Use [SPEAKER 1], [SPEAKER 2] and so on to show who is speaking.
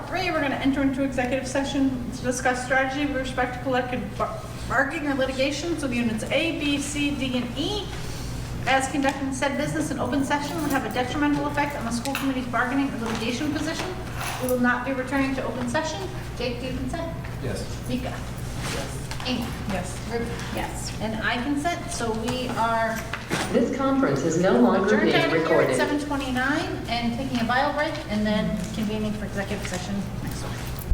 [SPEAKER 1] today, we're going to enter into executive session to discuss strategy with respect to collective bar- bargaining or litigations with units A, B, C, D, and E. As conducting said business in open session will have a detrimental effect on the school committee's bargaining or litigation position. We will not be returning to open session. Jake, do you consent?
[SPEAKER 2] Yes.
[SPEAKER 1] Mika? Yes. Amy? Yes. Ruby? Yes. And I consent, so we are
[SPEAKER 3] This conference is no longer
[SPEAKER 1] adjourned
[SPEAKER 3] being
[SPEAKER 1] out of here
[SPEAKER 3] recorded.
[SPEAKER 1] at 7:29 and taking a bio break and then convening for executive session next week.